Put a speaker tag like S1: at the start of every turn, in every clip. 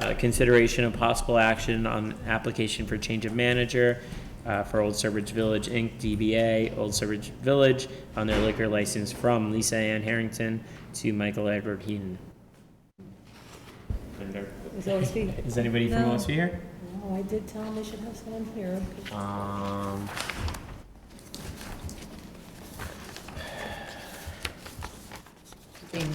S1: uh, consideration of possible action on application for change of manager uh, for Old Sturbridge Village Inc., DBA, Old Sturbridge Village, on their liquor license from Lisa Ann Harrington to Michael Edward Heaton. And there-
S2: It was OSB.
S1: Is anybody from
S2: No.
S1: OSU here?
S2: No, Oh, I did tell them they should have someone here.
S1: Um,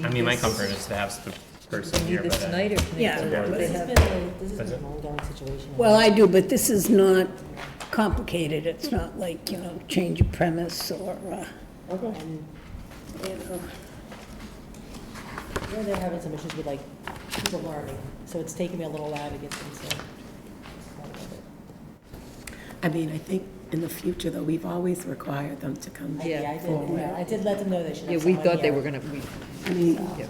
S1: I mean, my comfort is to have the person
S2: Need
S1: here,
S2: this
S1: but. uh,
S2: tonight or can they
S3: Yeah.
S2: go-
S1: Yeah.
S2: do they
S3: This has
S2: have-
S3: been, a- this has
S1: Is
S3: been
S1: it?
S3: an ongoing situation.
S4: Well, I do, but this is not complicated. It's not like, you know, change of premise or, uh,
S3: Okay.
S4: you know.
S3: Yeah, they're having some issues with like people learning, so it's taken me a little while to get them to.
S5: I mean, I think in the future, though, we've always required them to come.
S3: I- Yeah, I
S5: forward.
S3: did, I did let them know they should
S2: Yeah,
S3: have
S2: we
S3: someone
S2: thought they
S3: here.
S2: were gonna, we,
S5: I mean,
S2: yeah.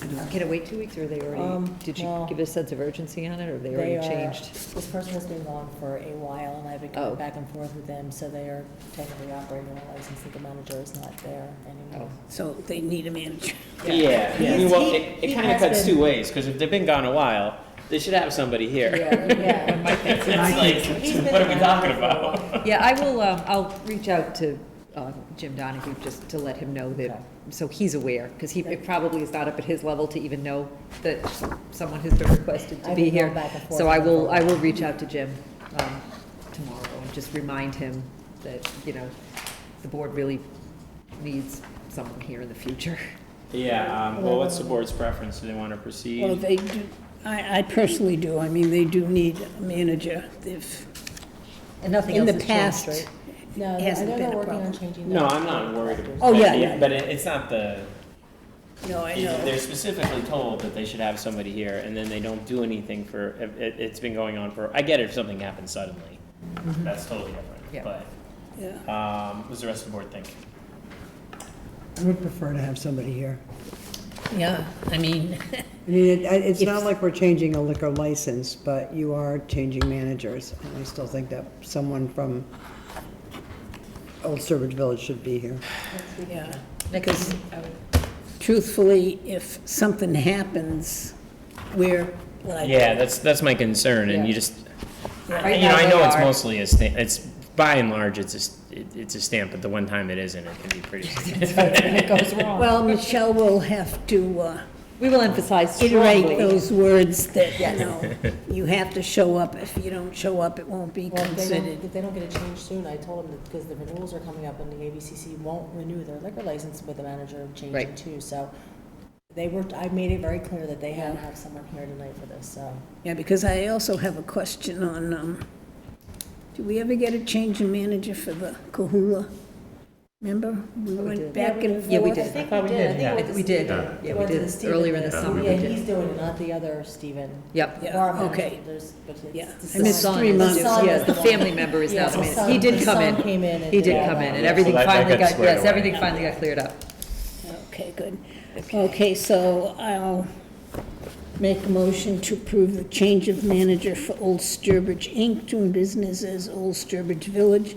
S5: I don't-
S2: Can it wait two weeks, or they already,
S3: Um,
S2: did you
S3: no.
S2: give a sense of urgency on it, or they
S3: They
S2: already
S3: are-
S2: changed?
S3: This person has been gone for a while, and I've been
S2: Oh.
S3: going back and forth with them, so they are technically operating on a license that the manager is not there anymore.
S2: Oh.
S4: so they need a manager.
S1: Yeah, I mean,
S3: He's-
S1: well,
S3: he-
S1: it, it
S3: he
S1: kind of
S3: has
S1: cuts
S3: been-
S1: two ways, because if they've been gone a while, they should have somebody here.
S3: Yeah,
S1: It's
S3: He's
S1: like,
S3: been
S1: what are we
S3: around
S1: talking
S3: for a while.
S1: about?
S2: Yeah, I will, um, I'll reach out to um, Jim Donahue just to let him know that, so he's aware, because he, it probably is not up at his level to even know that someone has been requested to
S3: I've
S2: be
S3: been going
S2: here.
S3: back and forth
S2: So I
S3: with
S2: will,
S3: her.
S2: I will reach out to Jim um, tomorrow and just remind him that, you know, the board really needs someone here in the future.
S1: Yeah, um, well, what's the board's preference? Do they want to proceed?
S4: Well, they do, I, I personally do. I mean, they do need a manager. If,
S2: And nothing
S4: in
S2: else
S4: the
S2: has changed,
S4: past,
S2: right?
S3: No, I
S4: hasn't
S3: know
S4: been
S3: they're
S4: a
S3: working on
S4: problem.
S3: changing that.
S1: No, I'm not worried. about
S4: Oh, yeah,
S1: it,
S4: yeah.
S1: But it, it's not the,
S4: no, I
S1: it-
S4: know.
S1: they're specifically told that they should have somebody here, and then they don't do anything for, it, it- it's been going on for, I get it if something happens suddenly.
S4: Mm-hmm.
S1: That's totally
S2: Yeah.
S1: different,
S4: Yeah.
S1: but, um, what does the rest of the board think?
S6: I would prefer to have somebody here.
S4: Yeah, I mean,
S6: I mean, it- I- it's not like we're changing a liquor license, but you are changing managers. And I still think that someone from Old Sturbridge Village should be here.
S4: yeah. Because truthfully, if something happens, we're like.
S1: Yeah, that's, that's my concern, and you
S2: Yeah.
S1: just,
S2: Right
S1: You know,
S2: now
S1: I
S2: they
S1: know it's
S2: are.
S1: mostly a stamp, it's, by and large, it's a, s- it- it's a stamp, but the one time it isn't, it can be pretty.
S2: It goes wrong.
S4: Well, Michelle will have to, uh,
S2: We will emphasize
S4: iterate
S2: strongly.
S4: those words that, you know, you have to show up. If you don't show up, it won't be
S3: Well, if they don't,
S4: considered.
S3: if they don't get a change soon, I told them that, because the renewals are coming up, and the ABCC won't renew their liquor license with the manager changing
S2: Right.
S3: too, so they were, I made it very clear that they had to have someone here tonight for this, so.
S4: Yeah, because I also have a question on, um, do we ever get a change in manager for the Kahula? Remember, we went
S2: did.
S4: back and forth?
S2: Yeah, we did.
S3: think we did. I think
S2: We did, yeah, we did, earlier in the summer we
S3: Yeah,
S2: did.
S3: he's doing it, not the other Stephen.
S2: Yep.
S4: Yeah,
S3: Bar manager,
S4: okay.
S3: there's- but it's
S4: Yeah.
S3: the
S4: I missed
S3: son.
S4: three
S3: The
S4: months.
S3: son
S2: Yes,
S3: is
S2: the
S3: one-
S2: family member is now
S3: Yes,
S2: the
S3: the
S2: manager.
S3: son-
S2: He did
S3: the
S2: come
S3: son
S2: in.
S3: came in and
S2: He
S3: did
S2: did
S3: all
S2: come
S3: that.
S2: in, and
S1: Yeah, so
S2: everything
S1: that- that
S2: finally
S1: gets
S2: got,
S1: squared
S2: yes,
S1: away.
S2: everything finally got cleared up.
S4: Okay, good. Okay, so I'll make a motion to approve the change of manager for Old Sturbridge Inc., doing business as Old Sturbridge Village,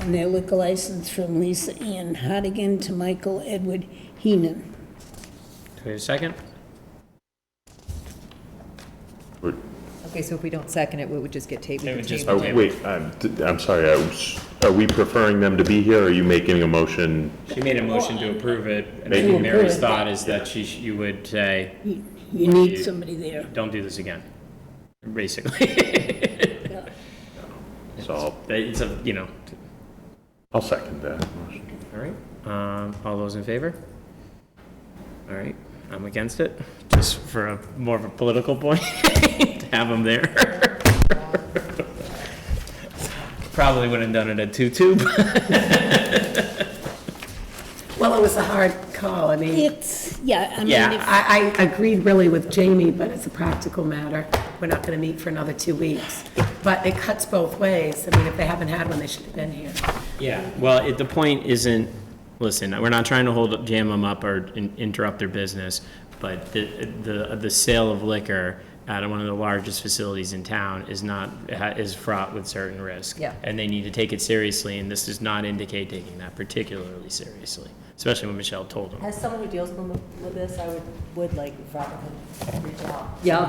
S4: on their liquor license from Lisa Ann Hardigan to Michael Edward Heenan.
S1: Wait a second?
S2: Okay, so if we don't second it, we would just get tabled.
S1: It would just
S2: tabled.
S7: Oh, wait, I'm, I'm sorry, I was, are we preferring them to be here, or are you making a motion?
S1: She made a motion to approve it, and I
S7: Maybe.
S1: think Mary's thought is that she, sh- you would say,
S4: You you need somebody there.
S1: don't do this again, basically.
S7: So I'll,
S1: It's a, you know, t-
S7: I'll second that motion.
S1: all right, um, all those in favor? All right, I'm against it, just for a, more of a political point, to have them there. Probably wouldn't have done it at two-two, but
S5: Well, it was a hard call. I mean,
S4: It's, yeah, I mean,
S1: Yeah.
S4: if-
S5: I, I agreed really with Jamie, but it's a practical matter. We're not going to meet for another two weeks. But it cuts both ways. I mean, if they haven't had one, they should have been here.
S1: Yeah, well, it, the point isn't, listen, we're not trying to hold, jam them up or in- interrupt their business, but the, the, the sale of liquor out of one of the largest facilities in town is not, ha- is fraught with certain risk.
S2: Yeah.
S1: And they need to take it seriously, and this does not indicate taking that particularly seriously, especially when Michelle told them.
S3: As someone who deals with with this, I would, would like, if I could reach out.
S2: Yeah, I'll